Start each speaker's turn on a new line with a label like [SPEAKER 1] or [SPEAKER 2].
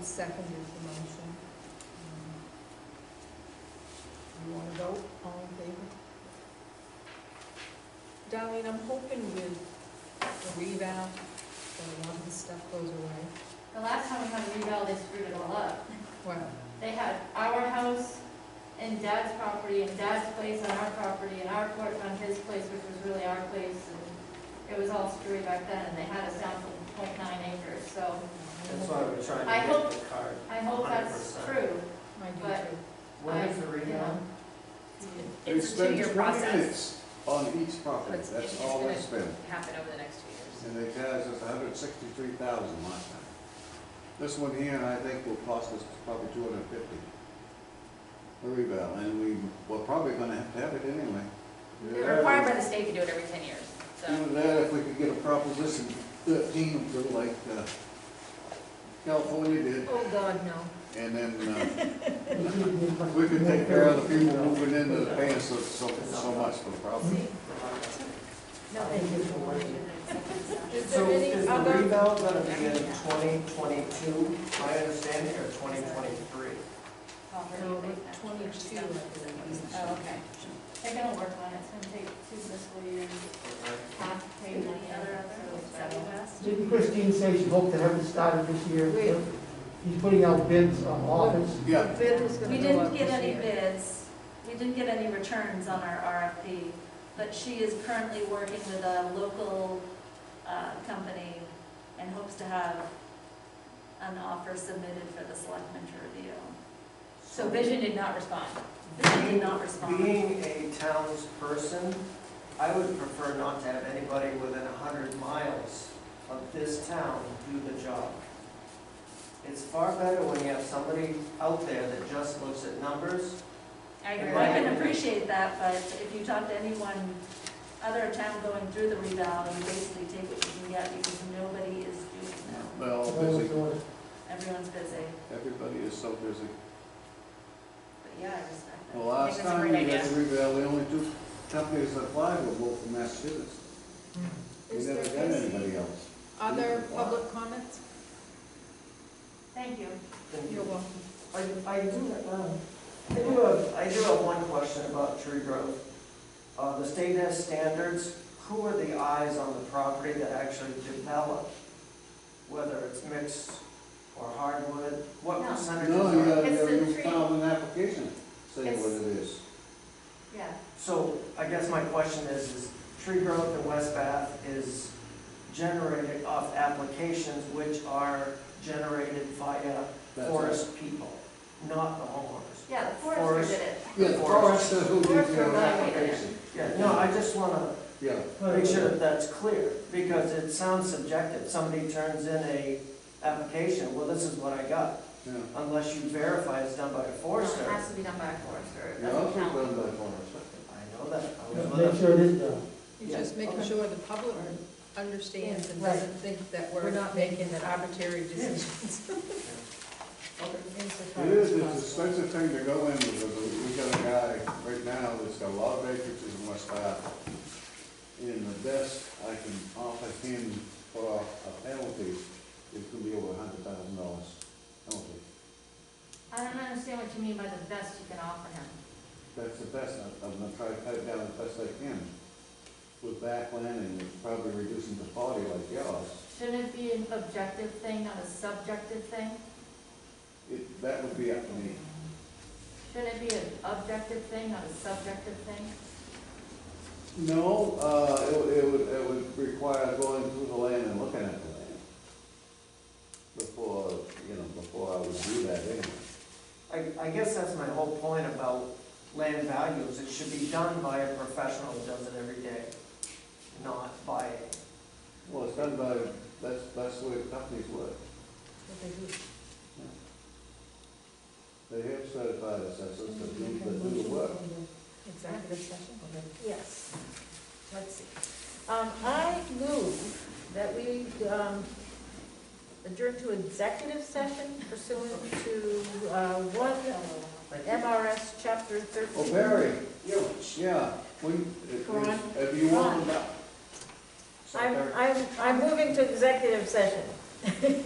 [SPEAKER 1] seconded the motion. Um, You want to vote, all in favor? Darlene, I'm hoping with the rebound, that a lot of this stuff goes away.
[SPEAKER 2] The last time we had a revale, they screwed it all up.
[SPEAKER 1] Well,
[SPEAKER 2] They had our house and dad's property and dad's place on our property and our porch on his place, which was really our place. and It was all screwy back then and they had us down to .9 acres, so
[SPEAKER 3] That's why we're
[SPEAKER 2] I
[SPEAKER 3] trying to
[SPEAKER 2] hope-
[SPEAKER 3] get the card.
[SPEAKER 2] I hope that's
[SPEAKER 3] 100%.
[SPEAKER 2] true.
[SPEAKER 1] I do
[SPEAKER 2] But-
[SPEAKER 1] too.
[SPEAKER 3] When is the
[SPEAKER 2] I- you
[SPEAKER 3] rebound?
[SPEAKER 4] They've
[SPEAKER 5] It's a two-year
[SPEAKER 4] spent twenty
[SPEAKER 5] process.
[SPEAKER 4] minutes on each property,
[SPEAKER 5] It's-
[SPEAKER 4] that's
[SPEAKER 5] it's
[SPEAKER 4] all
[SPEAKER 5] gonna
[SPEAKER 4] they spent.
[SPEAKER 5] Happen over the next two years.
[SPEAKER 4] And they charged us hundred sixty-three thousand last time. This one here, I think will cost us probably two hundred fifty. A revale, and we, we're probably gonna have to have it anyway.
[SPEAKER 5] They're required by the state to do it every ten years, so.
[SPEAKER 4] Even that, if we could get a proposition thirteen or so like, uh, California did,
[SPEAKER 1] Oh, God, no.
[SPEAKER 4] and then, uh, we could take care of the people moving into the paying so, so, so much for the property.
[SPEAKER 1] No, they didn't. Is
[SPEAKER 3] So
[SPEAKER 1] there
[SPEAKER 3] is
[SPEAKER 1] any
[SPEAKER 3] the
[SPEAKER 1] other,
[SPEAKER 3] rebound gonna be in twenty twenty-two, my understanding, or twenty twenty-three?
[SPEAKER 1] no, twenty-two, I believe.
[SPEAKER 5] Oh, okay.
[SPEAKER 2] They're gonna work on it, it's gonna take two fiscal years, half pay money, other, so.
[SPEAKER 6] Didn't Christine say she hoped to have it started this year?
[SPEAKER 1] Wait.
[SPEAKER 6] He's putting out bids on office.
[SPEAKER 4] Yeah,
[SPEAKER 1] Bid was gonna
[SPEAKER 7] We
[SPEAKER 1] go up
[SPEAKER 7] didn't get
[SPEAKER 1] this
[SPEAKER 7] any
[SPEAKER 1] year.
[SPEAKER 7] bids, we didn't get any returns on our RFP, but she is currently working with a local uh, company and hopes to have an offer submitted for the selectmen to review.
[SPEAKER 5] So Vision did not respond.
[SPEAKER 7] Vision did not respond.
[SPEAKER 3] Being a townsperson, I would prefer not to have anybody within a hundred miles of this town do the job. It's far better when you have somebody out there that just looks at numbers.
[SPEAKER 5] I agree.
[SPEAKER 7] Well, I can appreciate that, but if you talk to anyone, other town going through the revale, you basically take what you can get because nobody is doing that.
[SPEAKER 4] well, busy,
[SPEAKER 7] Everyone's busy,
[SPEAKER 4] everybody is so busy.
[SPEAKER 7] but yeah, I respect
[SPEAKER 4] The
[SPEAKER 7] that.
[SPEAKER 4] last
[SPEAKER 5] that's a
[SPEAKER 4] time we
[SPEAKER 5] great
[SPEAKER 4] had
[SPEAKER 5] idea.
[SPEAKER 4] the revale, the only two companies that applied were both from Massachusetts. We
[SPEAKER 1] Is
[SPEAKER 4] never
[SPEAKER 1] there
[SPEAKER 4] got
[SPEAKER 1] any
[SPEAKER 4] anybody else.
[SPEAKER 1] other public comments?
[SPEAKER 2] Thank you.
[SPEAKER 3] And
[SPEAKER 1] You're welcome.
[SPEAKER 3] I, I do, uh, I do have, I do have one question about tree growth. Uh, the state has standards, who are the eyes on the property that actually develop? Whether it's mixed or hardwood, what
[SPEAKER 2] No.
[SPEAKER 3] percentages
[SPEAKER 4] No, you
[SPEAKER 3] are?
[SPEAKER 4] gotta,
[SPEAKER 2] It's the
[SPEAKER 4] you
[SPEAKER 2] tree.
[SPEAKER 4] file an application, say
[SPEAKER 2] It's-
[SPEAKER 4] what it is.
[SPEAKER 2] Yeah.
[SPEAKER 3] So I guess my question is, is tree growth in West Bath is generated off applications which are generated via
[SPEAKER 4] That's
[SPEAKER 3] forest people, not the homeowners.
[SPEAKER 2] Yeah, the forester did it.
[SPEAKER 4] Yeah, the forest, uh, who did
[SPEAKER 2] Forest
[SPEAKER 4] your
[SPEAKER 2] provided it.
[SPEAKER 4] application.
[SPEAKER 3] Yeah, no, I just wanna
[SPEAKER 4] Yeah,
[SPEAKER 3] make sure that that's clear, because it sounds subjective. Somebody turns in a application, well, this is what I got,
[SPEAKER 4] yeah.
[SPEAKER 3] unless you verify it's done by a
[SPEAKER 2] It
[SPEAKER 3] forester.
[SPEAKER 2] has to be done by a forester. It
[SPEAKER 4] Yeah,
[SPEAKER 2] doesn't
[SPEAKER 4] I'll
[SPEAKER 2] count.
[SPEAKER 4] done by forest.
[SPEAKER 3] I know that. I was with
[SPEAKER 6] Make
[SPEAKER 3] it.
[SPEAKER 6] sure it is done.
[SPEAKER 1] You're just
[SPEAKER 3] Yeah,
[SPEAKER 1] making
[SPEAKER 3] okay.
[SPEAKER 1] sure the public understands and
[SPEAKER 6] Right.
[SPEAKER 1] doesn't think that we're
[SPEAKER 6] We're not
[SPEAKER 1] making an arbitrary decisions.
[SPEAKER 3] Okay.
[SPEAKER 4] It is, it's an expensive thing to go in, because we got a guy right now that's got a lot of acreages in West Bath. And the best I can offer him for a penalty is gonna be over a hundred thousand dollars penalty.
[SPEAKER 2] I don't understand what you mean by the best you can offer him.
[SPEAKER 4] That's the best, I- I'm gonna try to cut it down as best I can with backland and probably reducing the quality like yours.
[SPEAKER 2] Shouldn't it be an objective thing, not a subjective thing?
[SPEAKER 4] It, that would be up to me.
[SPEAKER 2] Shouldn't it be an objective thing, not a subjective thing?
[SPEAKER 4] No, uh, it would, it would, it would require going through the land and looking at the land. Before, you know, before I would do that anyway.
[SPEAKER 3] I, I guess that's my whole point about land values, it should be done by a professional who does it every day, not by,
[SPEAKER 4] Well, it's done by, that's, that's the way companies work. They have certified assessors that do, that do the work.
[SPEAKER 1] Executive session?
[SPEAKER 8] Yes, let's see. Um, I move that we, um, adjourn to executive session pursuant to, uh, one MRS chapter
[SPEAKER 4] Oh,
[SPEAKER 8] thirteen.
[SPEAKER 4] Barry, yeah, we, if you- if you want them up.
[SPEAKER 8] I'm, I'm, I'm moving to executive session